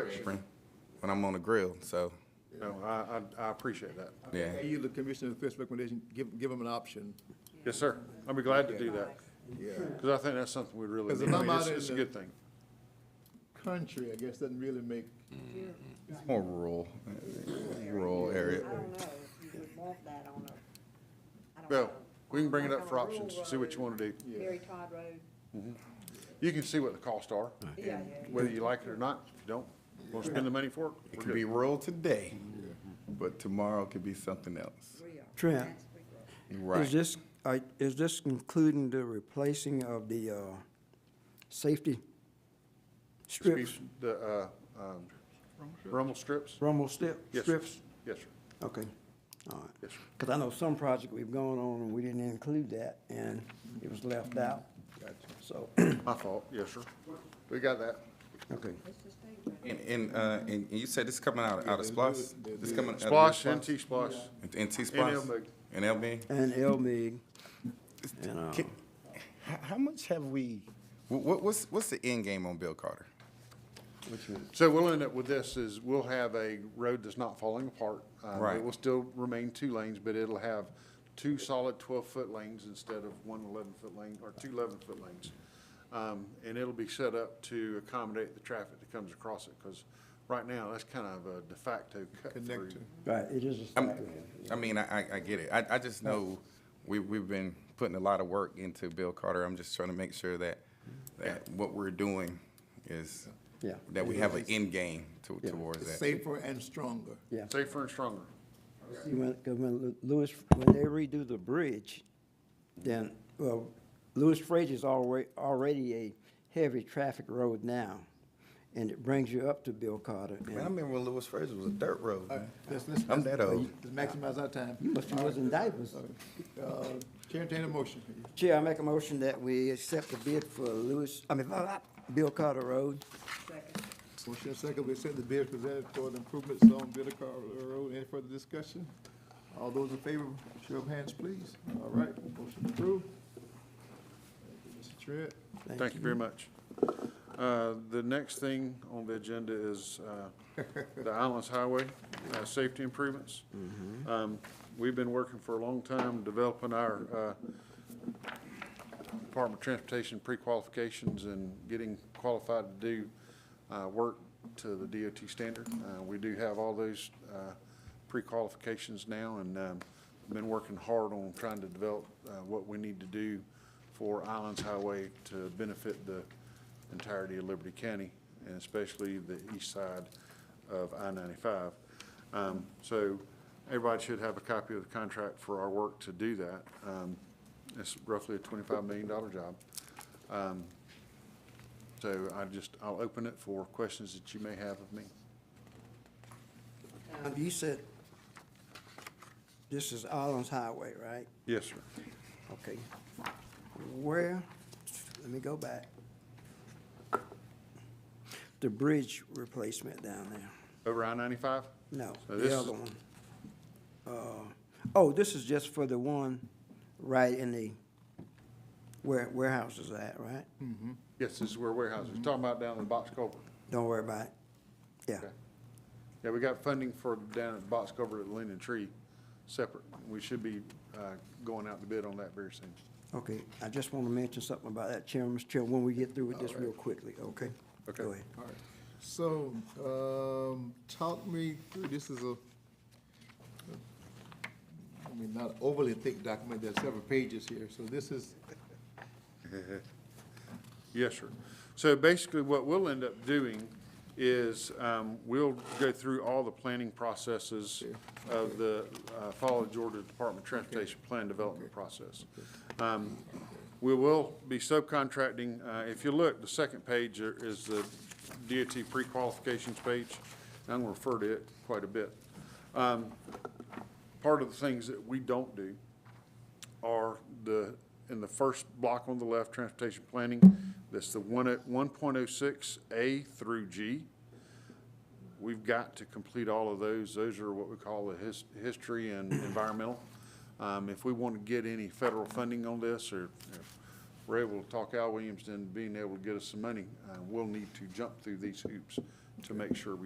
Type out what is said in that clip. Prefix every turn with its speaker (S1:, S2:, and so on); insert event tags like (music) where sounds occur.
S1: correction.
S2: when I'm on the grill, so,
S1: No, I, I, I appreciate that.
S2: yeah.
S3: Hey, you, the commissioner, Fisk's recommendation, give, give them an option.
S1: Yes, sir. I'll be glad to do that,
S3: Yeah.
S1: because I think that's something we really
S3: 'Cause if
S1: need.
S3: I'm
S1: It's,
S3: out in
S1: it's a
S3: the-
S1: good thing.
S3: Country, I guess, doesn't really make,
S2: It's More rural, rural area.
S4: I don't know if you would want that on a, I don't know.
S1: Well, we can bring it
S4: Like
S1: up for
S4: on a rural
S1: options, see what you want to do.
S4: road, Mary Todd Road,
S1: You can see what the costs are,
S4: yeah,
S1: and
S4: yeah.
S1: whether you like it or not. If you don't, want to spend the money for it,
S2: It
S1: we're
S2: could be
S1: good.
S2: rural today, but tomorrow could be something else.
S4: we are.
S5: Trent.
S4: That's we are.
S2: Right.
S5: Is this, I- is this including the replacing of the uh, safety strips,
S1: Excuse- The, uh, um, rumble strips?
S5: rumble step,
S1: Yes, sir.
S5: strips?
S1: Yes, sir.
S5: Okay, all right.
S1: Yes, sir.
S5: Because I know some project we've gone on and we didn't include that, and it was left out. So, (clears throat)
S1: My fault, yes, sir. We got that.
S5: okay.
S4: Let's just think about it.
S2: And, and, uh, and you said this coming out, out of Splosh? This coming out of
S1: Splosh,
S2: Splosh?
S1: NT Splosh.
S2: And- And T-Splosh?
S1: NLB.
S2: And LB?
S5: And LMIG, and, uh,
S2: Can- How, how much have we, what, what's, what's the end game on Bill Carter?
S1: So we'll end up with this is we'll have a road that's not falling apart. Um,
S2: Right.
S1: It will still remain two lanes, but it'll have two solid twelve-foot lanes instead of one eleven-foot lane or two eleven-foot lanes. Um, and it'll be set up to accommodate the traffic that comes across it, because right now, that's kind of a de facto cut through.
S3: Connector.
S5: right, it is a
S2: I'm-
S5: stop.
S2: I mean, I, I- I get it. I, I just know we, we've been putting a lot of work into Bill Carter. I'm just trying to make sure that, that what we're doing is,
S5: Yeah.
S2: that we have an end game to-
S5: Yeah.
S2: towards that.
S3: safer and stronger.
S5: Yeah.
S1: Safer and stronger.
S5: See, when, 'cause when Lewis, when they redo the bridge, then, well, Lewis Frazier's already, already a heavy traffic road now. And it brings you up to Bill Carter. and-
S2: remember when Lewis Fraser was a dirt road.
S3: All right, let's, let's.
S2: I'm that old.
S3: Let's maximize our time.
S5: You must have was in diapers.
S3: Uh, Chair, entertain a motion.
S5: Chair, I make a motion that we accept the bid for Lewis, I mean, Bill Carter Road.
S4: Second.
S3: Motion and second, we accept the bid presented for the improvements on Bitter Car Road. Any further discussion? All those in favor, show of hands, please. All right, motion approved. Thank you, Mr. Tritt.
S1: Thank you very much. Uh, The next thing on the agenda is uh, the Islands Highway uh, Safety Improvements. Um, We've been working for a long time developing our uh, Department of Transportation pre-qualifications and getting qualified to do uh, work to the DOT standard. Uh, We do have all those uh, pre-qualifications now and um, been working hard on trying to develop uh, what we need to do for Islands Highway to benefit the entirety of Liberty County and especially the east side of I-95. Um, So everybody should have a copy of the contract for our work to do that. Um, It's roughly a $25 million job. Um, So I just, I'll open it for questions that you may have of me.
S5: Um, You said this is Allen's Highway, right?
S1: Yes, sir.
S5: Okay. Where, let me go back. The bridge replacement down there.
S1: Over I-95?
S5: No,
S1: So this
S5: the
S1: is-
S5: other one. Uh, Oh, this is just for the one right in the where warehouse is at, right?
S1: Yes, this is where warehouses, talking about down in the box culvert.
S5: Don't worry about it. Yeah,
S1: Okay. Yeah, we got funding for down at box culvert at Linden Tree, separate. We should be uh, going out to bid on that very soon.
S5: okay. I just want to mention something about that, Chairman, Mr. Chairman, when we get through with this real quickly, okay?
S1: Okay.
S5: Go ahead.
S3: All right. So, um, talk me through, this is a, I mean, not overly thick document, there's several pages here, so this is,
S1: Yes, sir. So basically, what we'll end up doing is, um, we'll go through all the planning processes of the, uh, follow Georgia Department of Transportation Plan Development process. Um, we will be subcontracting, uh, if you look, the second page are- is the DOT pre-qualifications page. I'm gonna refer to it quite a bit. Um, part of the things that we don't do are the, in the first block on the left, transportation planning, that's the one at one point oh six A through G. We've got to complete all of those. Those are what we call the his, history and environmental. Um, if we want to get any federal funding on this, or if we're able to talk Al Williams into being able to get us some money, uh, we'll need to jump through these hoops to make sure we